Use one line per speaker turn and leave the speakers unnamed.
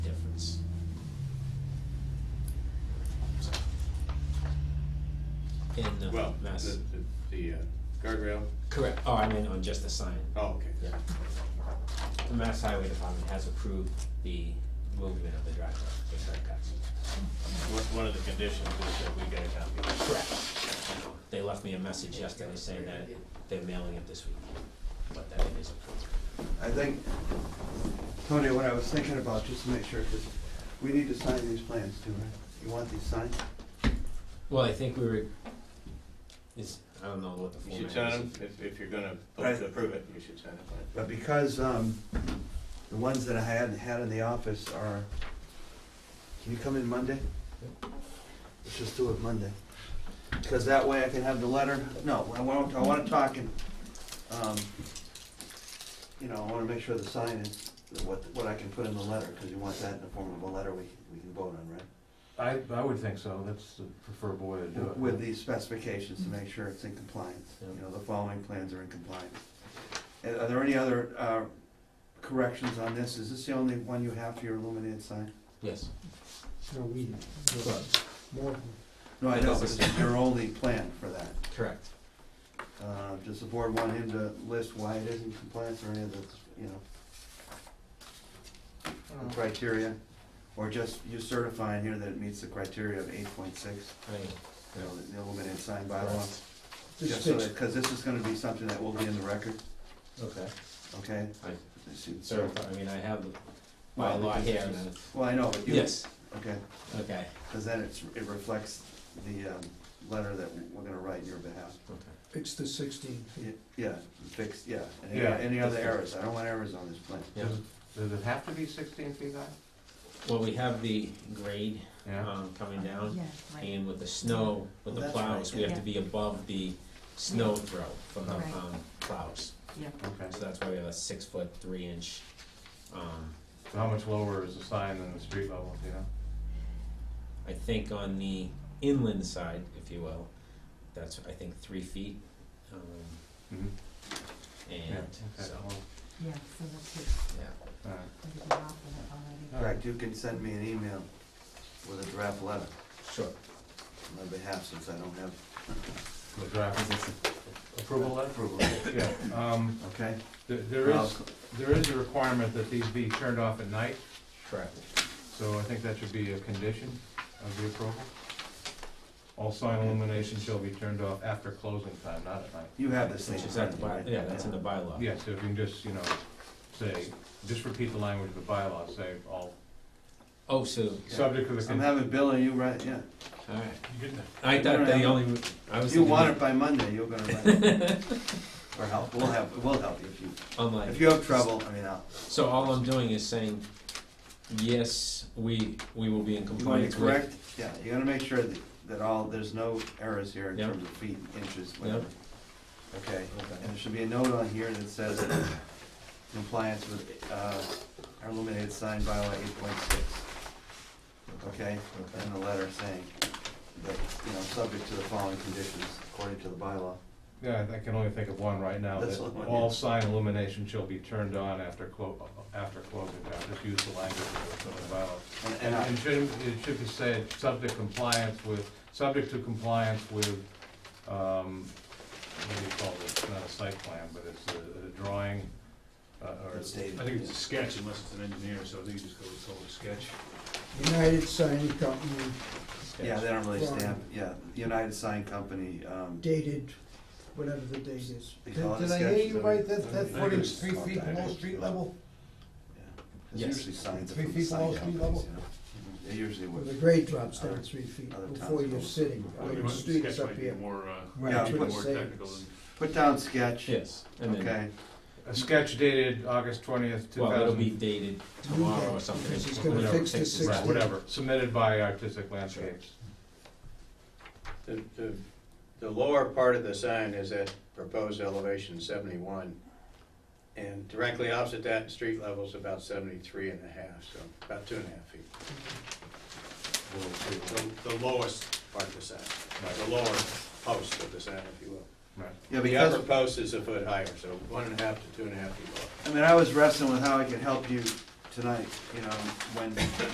Well, the,
that's
the- the uh, guardrail,
correct. Oh, I mean, on just the sign.
oh, okay.
Yeah. The Mass Highway Department has approved the movement of the driveway, the shortcuts.
One one of the conditions is that we get a copy.
Correct. They left me a message yesterday saying that they're mailing it this week, but that it is approved.
I think, Tony, what I was thinking about, just to make sure, because we need to sign these plans too, right? You want these signed?
Well, I think we were, is, I don't know what the format
You should
is.
sign them, if, if you're gonna vote to approve it, you should sign it.
But because um, the ones that I hadn't had in the office are, can you come in Monday? Let's just do it Monday. Because that way I can have the letter, no, I want, I want to talk and, um, you know, I want to make sure the sign is, what, what I can put in the letter, because you want that in the form of a letter we, we can vote on, right?
I, I would think so, that's the preferable way to do it.
with these specifications to make sure it's in compliance. You know, the following plans are in compliance. And Are there any other uh, corrections on this? Is this the only one you have for your illuminated sign?
Yes.
No, we, more than-
No, I know, but this is your only plan for that.
Correct.
Uh, Does the board want him to list why it is in compliance or any of the, you know, the criteria? Or just you certifying here that it meets the criteria of eight point six,
I mean,
you know, the illuminated sign bylaw? Just
This
so
fits.
that, because this is gonna be something that will be in the record,
okay.
okay?
I
So-
certify, I mean, I have the, my
Well,
law
because
here.
it's
and-
just- Well, I know, but you.
Yes,
Okay,
okay,
because then it's, it reflects the, um, letter that we're gonna write in your behalf.
okay.
Fix the sixteen
Y-
feet.
Yeah, fix, yeah, any,
Yeah.
any other errors, I don't want errors on this plan.
Yeah.
Does it- Does it have to be sixteen feet high?
Well, we have the grade,
Uh-huh.
Yeah,
um, coming down.
Yeah, right.
And with the snow, with the
That's
plows,
right,
we have
yeah.
to be above the snow throw from the,
Right.
um, plows.
okay.
So that's why we have a six foot, three inch, um,
So how much lower is the sign than the street level, do you know?
I think on the inland side, if you will, that's, I think, three feet. Um,
Mhm. Yeah,
and
okay,
so,
well,
Yeah, so that's it,
yeah.
all right.
we've been off of it already.
All right.
Correct, you can send me an email with a draft letter
Sure.
on my behalf, since I don't have
The draft approval letter?
approval,
Yeah, um,
okay?
th- there is,
Well,
there is a requirement that these be turned off at night,
Correct.
so I think that should be a condition of the approval. All sign illumination shall be turned off after closing time, not at night.
You have this thing.
Which is at the by,
right?
yeah, that's in the bylaw.
Yeah, so if you can just, you know, say, just repeat the language of the bylaw, say all,
Oh, so,
subject to the.
I'm
con-
having Bill and you write, yeah,
alright. I thought
Alright.
the only, I was
if you
thinking,
want it
that
by Monday, you're gonna write it. Or help, we'll help, we'll help you if you,
unlike,
if you have trouble, I mean, I'll,
so all I'm doing is saying, yes, we, we will be in
You want
compliance
to
with.
correct, yeah, you gotta make sure that, that all, there's no errors here in
Yeah.
terms of feet, inches,
Yeah.
whatever. Okay,
Okay.
and there should be a note on here that says compliance with, uh, our illuminated sign bylaw eight point six, okay?
Okay.
And the letter saying that, you know, subject to the following conditions according to the bylaw.
Yeah, I can only think of one right now,
That's
that
the one,
all
yeah.
sign illumination shall be turned on after clo, after closing time, just use the language of the bylaw.
And, and
And
I,
it should, it should be said, subject compliance with, subject to compliance with, um, what do you call it, it's not a site plan, but it's a, a drawing, uh, or.
it's dated.
I think it's a sketch unless it's an engineer, so I think you just go with total sketch.
United Sign Company
Yeah, they don't really stamp, yeah, United Sign Company, um,
dated, whatever the date is.
They
Did
call it
did
a
I
sketch,
hear you
don't
right?
they?
That, that
They
footage,
just
three
call it
feet below
diagrams.
street level,
yeah, 'cause
Yes.
usually signs are
Three
from
feet
sign
below street
companies, you
level?
know? They usually
where
would.
the grade drops down
Other-
three feet
other
before
towns
you're
will-
sitting, where the street is up here.
More, uh,
Right,
Yeah,
that's what
more
but-
I'm saying.
technical than.
Put down sketch,
Yes, and then.
okay?
A sketch dated August twentieth, two
Well, it'll
thousand
be dated tomorrow or something.
Because he's gonna
whatever
fix the
takes it.
16.
Right, whatever, submitted by Artistic Landscapes.
The, the, the lower part of the sign is at proposed elevation seventy-one, and directly opposite that, street level's about seventy-three and a half, so about two and a half feet. The, the lowest part of the sign, the lower post of the sign, if you will.
Right.
Yeah,
The upper
because,
post is a foot higher, so one and a half to two and a half feet lower.
I mean, I was wrestling with how I could help you tonight, you know, when